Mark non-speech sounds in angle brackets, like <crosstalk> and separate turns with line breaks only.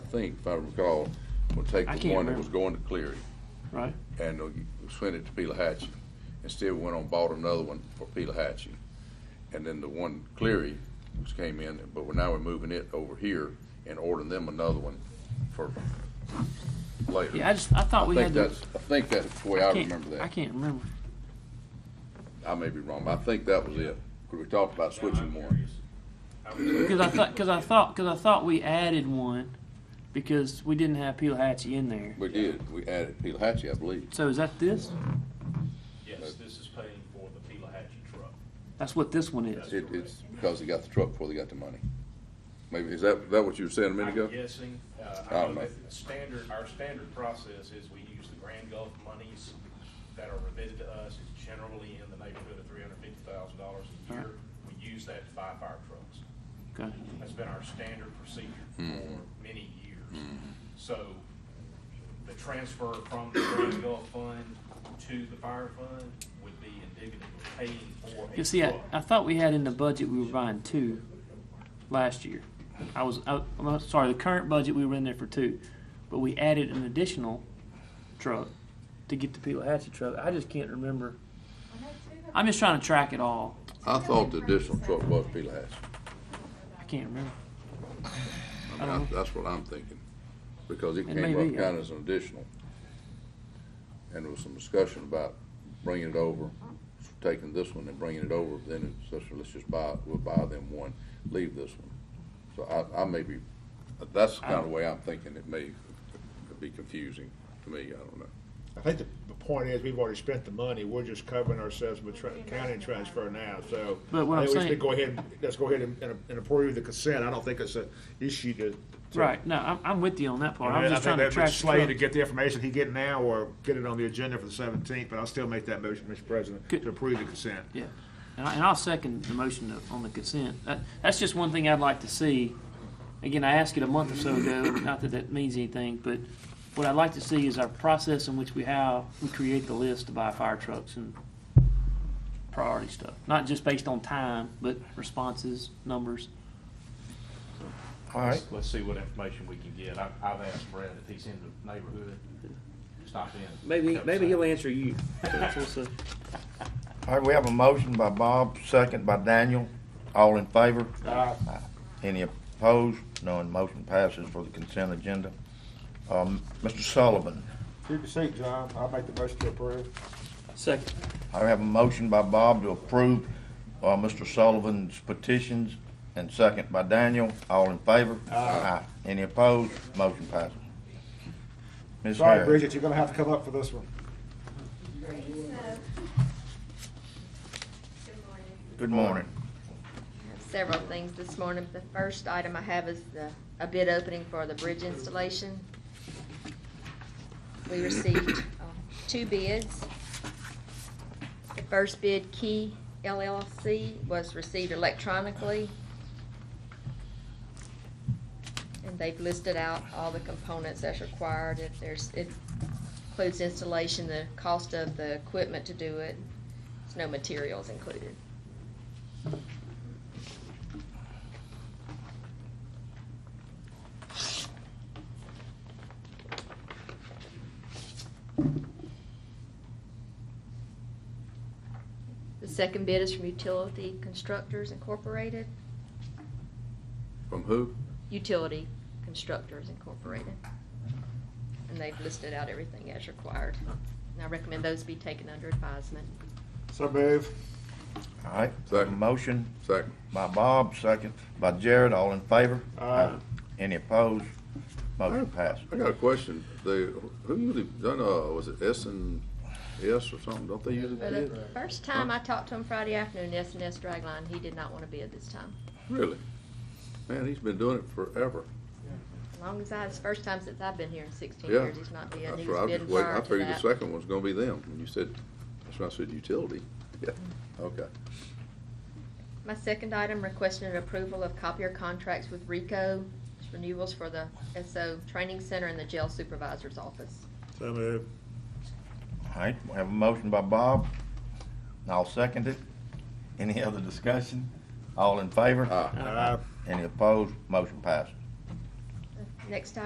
think, if I recall, will take
I
the
can't
one that was
remember.
going to Cleary
right?
and they'll g- send it to Pelahatchie. Instead, we went on, and bought another one for Pelahatchie. And then the one Cleary, which came in, but we're, now we're moving it over here and ordering them another one for later.
Yeah, I just, I thought
I
we
think
had. the-
that's, I think that's the way I
can't-
remember
I
that.
can't remember.
I may be wrong, but I think that was it. Cause we talked about switching one.
Because I thought, because I thought, because I thought we added one because we didn't have Pelahatchie in there.
We did, we added Pelahatchie, I believe.
So is that this?
Yes, this is paying for the Pelahatchie truck.
That's what this one is.
It, it's because they got the truck before they got the money. Maybe, is that, that what you were saying a minute ago? Oh,
I'm guessing, uh,
I
I
don't
know
know.
that the standard, our standard process is we use the Grand Gulf monies that are remitted to us, it's generally in the neighborhood of three hundred fifty thousand dollars a year. We use that to buy fire trucks.
Okay.
That's been our standard procedure
Hmm.
for many years. So the transfer from the Grand Gulf Fund to the fire fund would be indicative of paying for a
You see, I,
truck.
I thought we had in the budget we were buying two last year. I was, I, I'm sorry, the current budget we were in there for two, but we added an additional truck to get the Pelahatchie truck. I just can't remember. I'm just trying to track it all.
I thought the additional truck was Pelahatchie.
I can't remember.
I mean, I- that's what I'm thinking, because it
Uh-huh. It may
came up
be,
kind
yeah.
of as an additional. And there was some discussion about bringing it over, taking this one and bringing it over, then it's, just, let's just buy, we'll buy them one, leave this one. So I, I may be, that's the kind
Um,
of way I'm thinking, it may be confusing to me, I don't know.
I think the, the point is, we've already spent the money, we're just covering ourselves with tra- county transfer now, so.
But what I'm
I think we should
saying-
Go ahead, and- let's go ahead and, and- and approve the consent, I don't think it's a issue to. to-
Right, no, I'm, I'm with you on that part.
I
I'm
mean, I
just
think
trying to
that would
track the
Slade to
truck.
get the information he get now, or get it on the agenda for the seventeenth, but I'll still make that motion, Mr. President,
Good.
to approve the consent.
Yeah, and, I, and I'll second the motion to- on the consent. That, that's just one thing I'd like to see. Again, I asked it a month or so ago, not that that means anything, but what I'd like to see is our process in which we how we create the list to buy fire trucks and priority stuff, not just based on time, but responses, numbers.
All right.
Let's see what information we can get. I, I've asked Brad if he's in the neighborhood, stop in.
Maybe,
Come
maybe
say.
he'll answer you. <laughs> That's what's up.
All right, we have a motion by Bob, second by Daniel. All in favor?
Uh,
Aye. Any opposed? None. Motion passes for the consent agenda. Um, Mr. Sullivan,
Keep your seat, John, I'll make the motion to approve.
Second,
I have a motion by Bob to approve, uh, Mr. Sullivan's petitions, and second by Daniel. All in favor? Aye. Any opposed? Motion passes. Ms.
Sorry,
Harris.
Bridget, you're gonna have to come up for this one.
Good morning.
Several things this morning. The first item I have is the, a bid opening for the bridge installation. We received uh, two bids. The first bid, Key LLC, was received electronically. And they've listed out all the components that's required. If there's, it includes installation, the cost of the equipment to do it. There's no materials included. The second bid is from Utility Constructors Incorporated.
From who?
Utility Constructors Incorporated. And they've listed out everything as required. And I recommend those be taken under advisement.
So move.
All right,
Second.
motion
Second.
by Bob, second by Jared. All in favor?
Aye.
Any opposed? Motion passes.
I got a question, they, who usually, done, uh, was it S and S or something, don't they usually
For
bid?
the first time I talked to him Friday afternoon, S and S Dragline, he did not want to bid this time.
Really? Man, he's been doing it forever.
As long as I, it's the first time since I've been here in sixteen
Yeah.
years, he's not bid.
That's
He
right. I
was
was
bidding
just waiting.
prior
I
to
figured the
that.
second one's gonna be them, and you said, that's when I said utility. Yeah, okay.
My second item, requesting an approval of copier contracts with RICO, It's renewals for the SO Training Center and the Jail Supervisor's Office.
So move.
All right, we have a motion by Bob. I'll second it. Any other discussion? All in favor?
Aye.
Any opposed? Motion passes.
Next